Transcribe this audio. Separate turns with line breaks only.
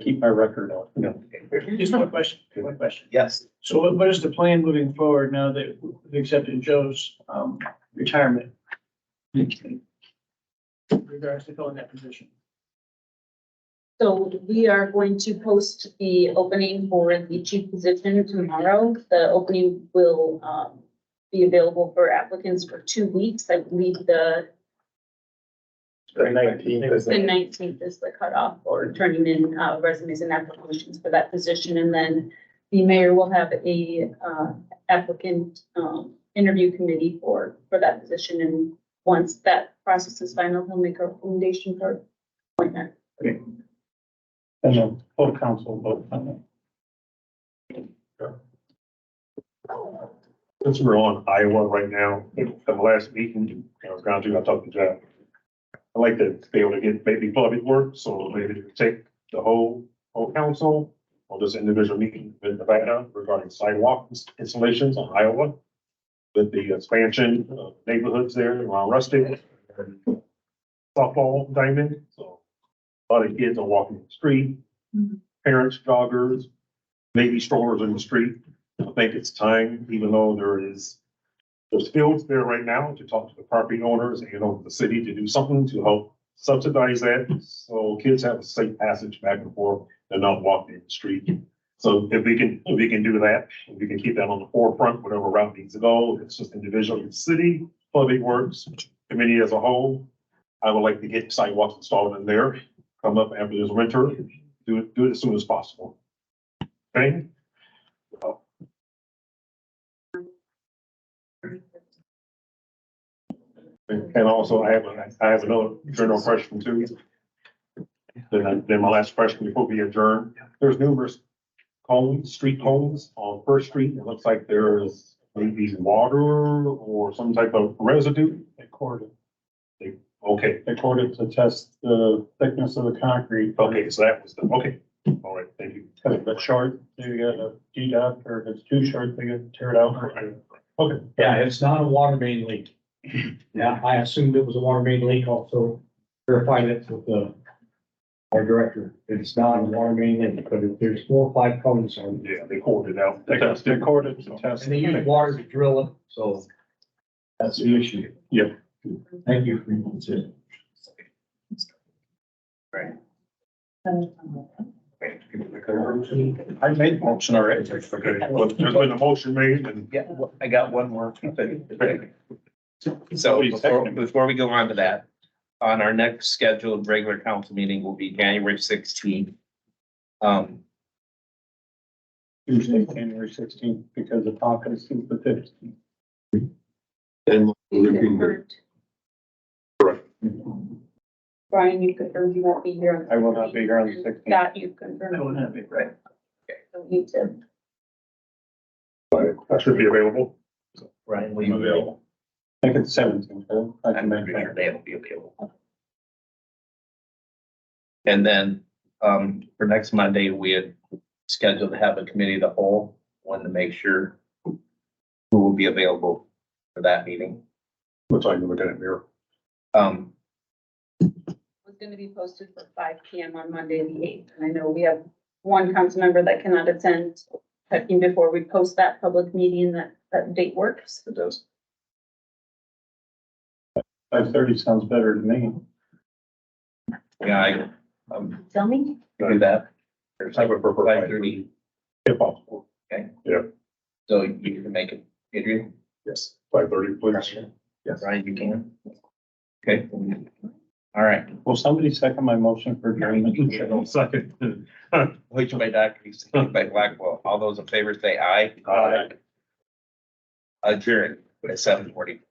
keep my record on.
Just one question, one question.
Yes.
So what, what is the plan moving forward now that we've accepted Joe's, um, retirement? In Regards to filling that position.
So we are going to post the opening for the chief position tomorrow. The opening will um, be available for applicants for two weeks. I believe the
The nineteenth is
the nineteenth is the cutoff for turning in uh, resumes and applications for that position. And then the mayor will have a uh, applicant um, interview committee for, for that position. And once that process is final, he'll make a recommendation for appointment.
and the full council vote on
Since we're on Iowa right now, the last meeting I was gone to, I talked to John. I like to be able to get maybe public work, so maybe take the whole, whole council or this individual meeting in Nevada regarding sidewalk ins- installations on Iowa. With the expansion of neighborhoods there around Rustic. and Softball diamond, so a lot of kids are walking the street.
Mhm.
Parents, joggers, maybe strollers in the street. I think it's time, even though there is, there's fields there right now to talk to the property owners and over the city to do something to help subsidize that. So kids have a safe passage back and forth and not walking in the street. So if we can, if we can do that, if we can keep that on the forefront, whatever route needs to go, if it's just individual, it's city, public works, committee as a whole. I would like to get sidewalks installed in there, come up after this winter, do it, do it as soon as possible. Okay? And also, I have, a- I have another general question too. Then, I- then my last question before we adjourn, there's numerous homes, street homes on First Street. It looks like there is maybe water or some type of residue.
it. They cored it,
Okay,
they cored it to test the thickness of the concrete.
okay, so that was the, okay, all right, thank you.
Cause if it's short, they get a deduct, or if it's too short, they get tear it out.
Okay,
Yeah, it's not a water main leak. Yeah, I assumed it was a water main leak also. Verified it with the, our director. It's not a water main leak, but if there's four or five cones on it.
yeah, they called it out.
They got, they cored it to test.
And they use water to drill it, so that's the issue.
Yeah.
Thank you for your concern.
I made motion already.
Okay, well, there's been a motion made and.
Yeah, well, I got one more thing. So
Somebody's
before,
texting.
before we go on to that, on our next scheduled regular council meeting will be January sixteenth. Um,
Tuesday, January sixteenth, because the caucus is the fifteenth.
And
You could hurt.
Correct.
Brian, you could, or you won't be here. on the
I will not be here on the 16th.
That you confirmed.
I won't have it, right?
Don't need to.
I should be available.
Ryan, will
I'm
you be
available.
available?
I think it's seventeenth, I can make that.
They will be available. And then, um, for next Monday, we had scheduled to have a committee of the whole, wanted to make sure who will be available for that meeting.
Looks like we're gonna mirror.
Um,
was gonna be posted for five P M on Monday, the eighth, and I know we have one council member that cannot attend. Checking before we post that public meeting, that, that date works.
it does.
Five thirty sounds better to me.
Yeah, I, um,
Tell me,
do that.
I would prefer
Five thirty,
If possible,
so you can make it, Adrian,
yes, five thirty, please. Yes.
Ryan, you can. Okay. All right,
Will somebody second my motion for adjournment?
Second.
which by Dockery, second by Blackwell, all those in favor say aye.
Aye.
Adjourn at seven forty.